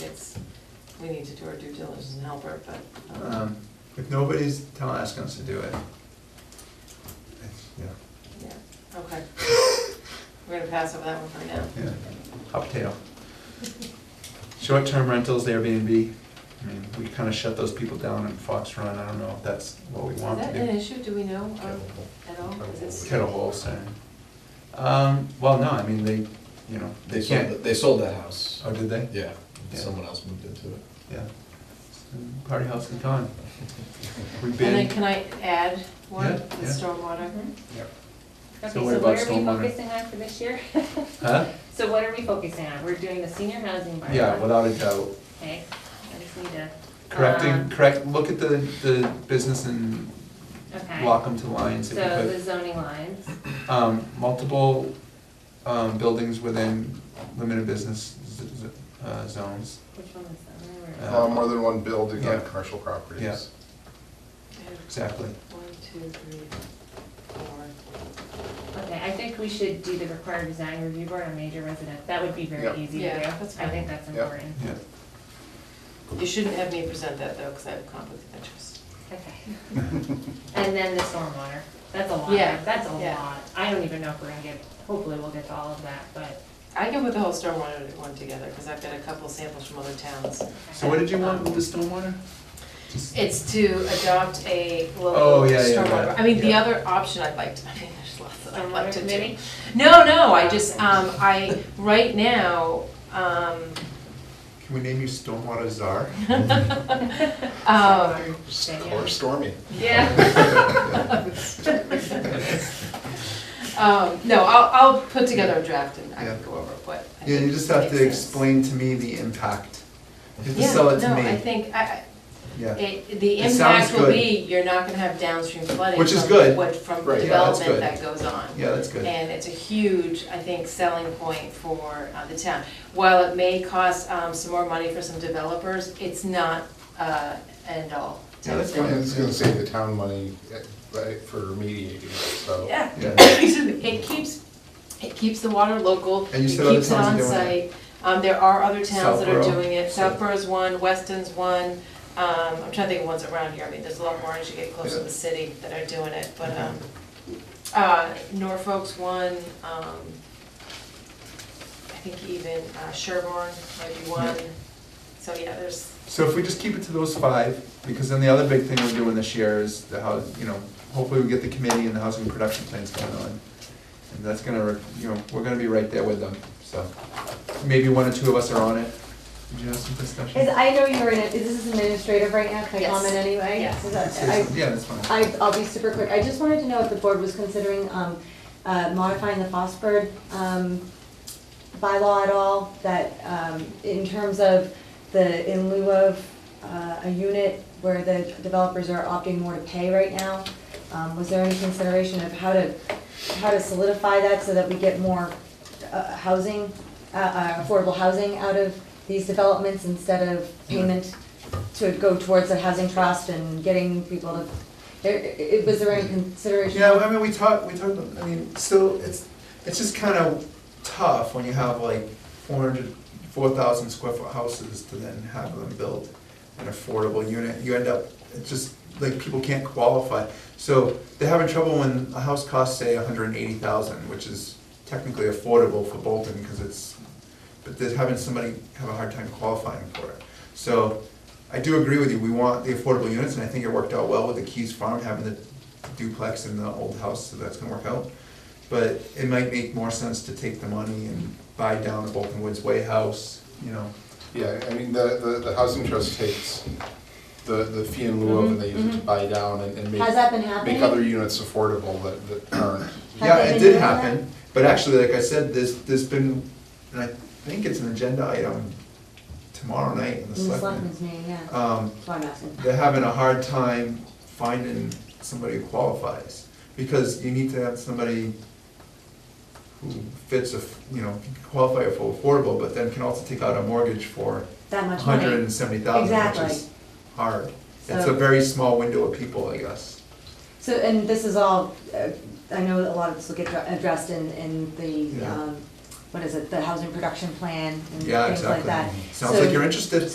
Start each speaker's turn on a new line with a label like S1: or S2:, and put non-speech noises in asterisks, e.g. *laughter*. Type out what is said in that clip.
S1: we need to do our due diligence and help her, but, um,
S2: Um, If nobody's tell- asking us to do it, it's- yeah,
S1: yeah,
S2: *laughs*
S1: okay. We're gonna pass over that one for now.
S2: yeah, hot potato. Short-term rentals, Airbnb, I mean, we kind of shut those people down in Fox Run, I don't know if that's what we
S1: Is
S2: want to
S1: that
S2: do.
S1: an issue, do we know of at all? Is it-
S2: Kettle Hall Center. Um, well, no, I mean, they, you know, they
S3: They sold,
S2: can't,
S3: that- they sold that house.
S2: oh, did they?
S3: Yeah,
S2: Yeah.
S3: someone else moved into it.
S2: Yeah. Party house in
S1: *laughs*
S2: town. We've
S1: And then
S2: been,
S1: can I add one,
S2: Yeah,
S1: the
S2: yeah.
S1: stormwater?
S4: Mm-hmm. Okay,
S2: So
S4: so
S2: what
S4: what
S2: about
S4: are we
S2: stormwater?
S4: focusing on for this year? *laughs*
S2: huh?
S4: So what are we focusing on? We're doing the senior housing bylaw.
S2: Yeah, without a doubt.
S4: Okay, I just need to.
S2: Correcting,
S4: um,
S2: correct, look at the, the business and
S4: Okay,
S2: lock them to lines
S4: so
S2: if you
S4: the
S2: could.
S4: zoning lines,
S2: Um, multiple, um, buildings within limited business z- z- uh, zones.
S4: which one is that? Where were we?
S2: Uh,
S5: Uh, more than one building
S2: Yeah.
S5: on commercial properties.
S2: Yeah. Exactly.
S1: One, two, three, four.
S4: Okay, I think we should do the required design review board on major residence. That would be
S5: Yep.
S4: very easy to do.
S1: Yeah, that's
S4: I
S1: fine.
S4: think that's
S5: Yep.
S4: important.
S2: Yeah.
S1: You shouldn't have me present that though, because I have conflict of interest.
S2: *laughs*
S4: Okay. And then the stormwater. That's a lot.
S1: Yeah,
S4: That's a
S1: yeah.
S4: lot. I don't even know if we're gonna get, hopefully we'll get to all of that, but.
S1: I can put the whole stormwater one together, because I've got a couple samples from other towns.
S2: So what did you want with the stormwater? Just-
S1: It's to adopt a
S2: Oh,
S1: local
S2: yeah, yeah,
S1: stormwater,
S2: yeah.
S1: I mean, the
S2: Yeah.
S1: other option I'd like to, *laughs* I mean, there's lots that I'd like
S4: Stormwater
S1: to do.
S4: committee?
S1: No, no, I just, um, I, right now,
S4: *laughs*
S1: um,
S2: Can we name you Stormwater Czar?
S1: um,
S4: Stormwater, say yeah.
S5: Or stormy.
S4: Yeah.
S1: *laughs* um, no, I'll, I'll put together a draft and I
S2: Yeah.
S1: can go over what. I
S2: Yeah, you
S1: think
S2: just have
S1: makes
S2: to
S1: sense.
S2: explain to me the impact. You have to
S1: Yeah,
S2: sell it to
S1: no,
S2: me.
S1: I think, I, I,
S2: Yeah,
S1: it, the
S2: It sounds
S1: impact will
S2: good.
S1: be, you're not gonna have downstream flooding
S2: Which is
S1: from
S2: good.
S1: what, from the
S2: Right, yeah, that's
S1: development
S2: good.
S1: that goes on.
S2: yeah, that's good.
S1: And it's a huge, I think, selling point for uh, the town. While it may cost um, some more money for some developers, it's not uh, end all.
S2: Yeah, that's
S5: And
S2: fine.
S5: it's gonna save the town money, eh, right, for remediating, it, so.
S1: Yeah.
S2: Yeah,
S1: Excuse me. *laughs* It keeps, it keeps the water local.
S2: And you said other towns
S1: It
S2: are doing
S1: keeps it on site. Um, There are other towns that are
S2: Southborough.
S1: doing it. Southborough's one, Weston's one. um, I'm trying to think of ones around here. I mean, there's a lot more as you get closer to the city that are doing it, but um, uh, Norfolk's one. um, I think even uh, Sherborne might be one. So, yeah, there's,
S2: So if we just keep it to those five, because then the other big thing we're doing this year is the house, you know, hopefully we get the committee and the housing production plans going on. And that's gonna, re- you know, we're gonna be right there with them, so maybe one or two of us are on it. Did you have some
S6: Is,
S2: discussion?
S6: I know you're in, it. this is administrative right now, can I
S1: Yes.
S6: comment anyway?
S1: Yes.
S6: Is that-
S2: Say some- Yeah, that's fine.
S6: I, I, I'll be super quick, I just wanted to know if the board was considering, um, uh, modifying the Fosford, um, bylaw at all, that, um, in terms of the, in lieu of, uh, a unit where the developers are opting more to pay right now, um, was there any consideration of how to, how to solidify that so that we get more, uh, housing, uh, uh, affordable housing out of these developments instead of payment to go towards the housing trust and getting people to, there, it, was there any consideration?
S2: Yeah, I mean, we talked, we talked, about- I mean, still, it's, it's just kind of tough when you have like four hundred, four thousand square foot houses to then have them build an affordable unit. You end up, it's just, like, people can't qualify. So they're having trouble when a house costs, say, hundred and eighty thousand, which is technically affordable for Bolton, because it's, but they're having somebody have a hard time qualifying for it. So I do agree with you, we want the affordable units, and I think it worked out well with the Keys Farm having the duplex and the old house, so that's gonna work out. But it might make more sense to take the money and buy down the Bolton Woods Way house, you know.
S5: Yeah, I mean, the, the, the housing trust takes the, the fee in lieu of, and they use it to buy down and, and
S6: Mm-hmm, Has that
S5: make,
S6: been happening?
S5: make other units affordable that, that aren't.
S6: Have
S2: Yeah,
S6: they
S2: it
S6: been
S2: did
S6: doing that?
S2: happen, but actually, like I said, there's, there's been, and I think it's an agenda item tomorrow night in the
S6: In the
S2: selectmen.
S6: selectmen's meeting, yeah, that's
S2: Um,
S6: why I'm asking.
S2: they're having a hard time finding somebody who qualifies, because you need to have somebody who fits a, f- you know, can qualify for affordable, but then can also take out a mortgage for
S6: That much money.
S2: hundred and seventy thousand, which
S6: Exactly.
S2: is hard. It's a
S6: So-
S2: very small window of people, I guess.
S6: So, and this is all, uh, I know a lot of this will get dr- addressed in, in the,
S2: Yeah.
S6: um, what is it, the housing production plan and
S2: Yeah,
S6: things like
S2: exactly.
S6: that.
S2: Sounds like
S6: So-
S2: you're interested.